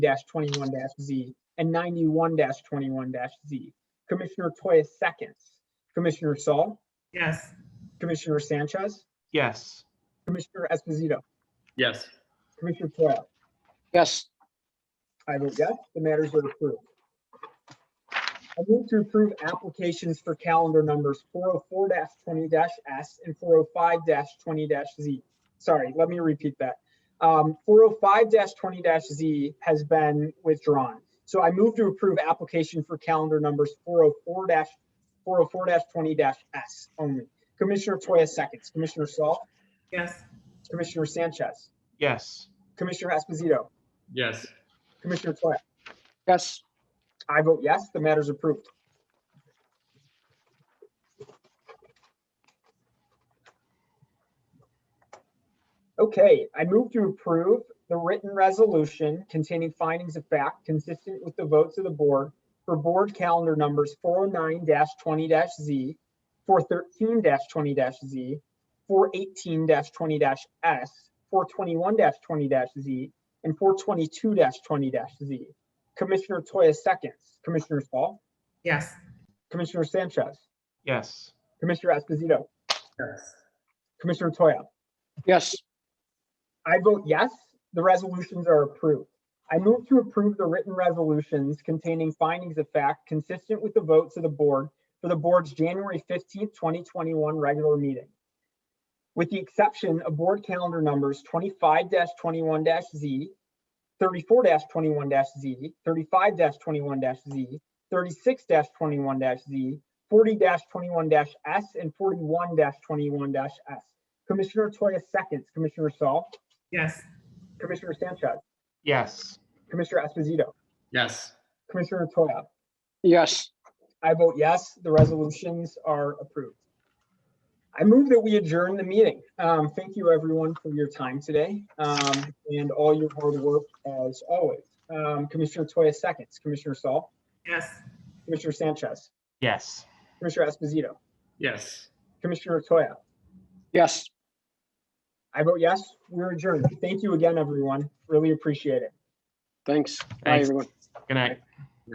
twenty-one Z and ninety-one twenty-one Z. Commissioner Toya seconds. Commissioner Saul, Yes. Commissioner Sanchez, Yes. Commissioner Esposito, Yes. Commissioner Toya. yes, I vote yes, the matters are approved. I move to approve applications for calendar numbers four oh four twenty S and four oh five twenty Z. Sorry, let me repeat that. Um, four oh five twenty Z has been withdrawn. So I move to approve application for calendar numbers four oh four four oh four twenty S only. Commissioner Toya seconds, Commissioner Saul, Yes. Commissioner Sanchez, Yes. Commissioner Esposito, Yes. Commissioner Toya. yes, I vote yes, the matter is approved. Okay, I move to approve the written resolution containing findings of fact consistent with the votes of the board for board calendar numbers 409-20-Z, 413-20-Z, 418-20-S, 421-20-Z, and 422-20-Z. Commissioner Toya seconds, Commissioner Saul, Yes. Commissioner Sanchez, Yes. Commissioner Esposito, Yes. Commissioner Toya. yes, I vote yes, the resolutions are approved. I move to approve the written resolutions containing findings of fact consistent with the votes of the board for the board's January 15th, 2021 regular meeting. With the exception of board calendar numbers 25-21-Z, 34-21-Z, 35-21-Z, 36-21-Z, 40-21-S, and 41-21-S. Commissioner Toya seconds, Commissioner Saul, Yes. Commissioner Sanchez, Yes. Commissioner Esposito, Yes. Commissioner Toya. yes, I vote yes, the resolutions are approved. I move that we adjourn the meeting. Um, thank you, everyone, for your time today, um, and all your hard work as always. Um, Commissioner Toya seconds, Commissioner Saul, Yes. Commissioner Sanchez, Yes. Commissioner Esposito, Yes. Commissioner Toya. yes. I vote yes, we're adjourned. Thank you again, everyone. Really appreciate it. Thanks. Bye, Thanks. everyone. Good night.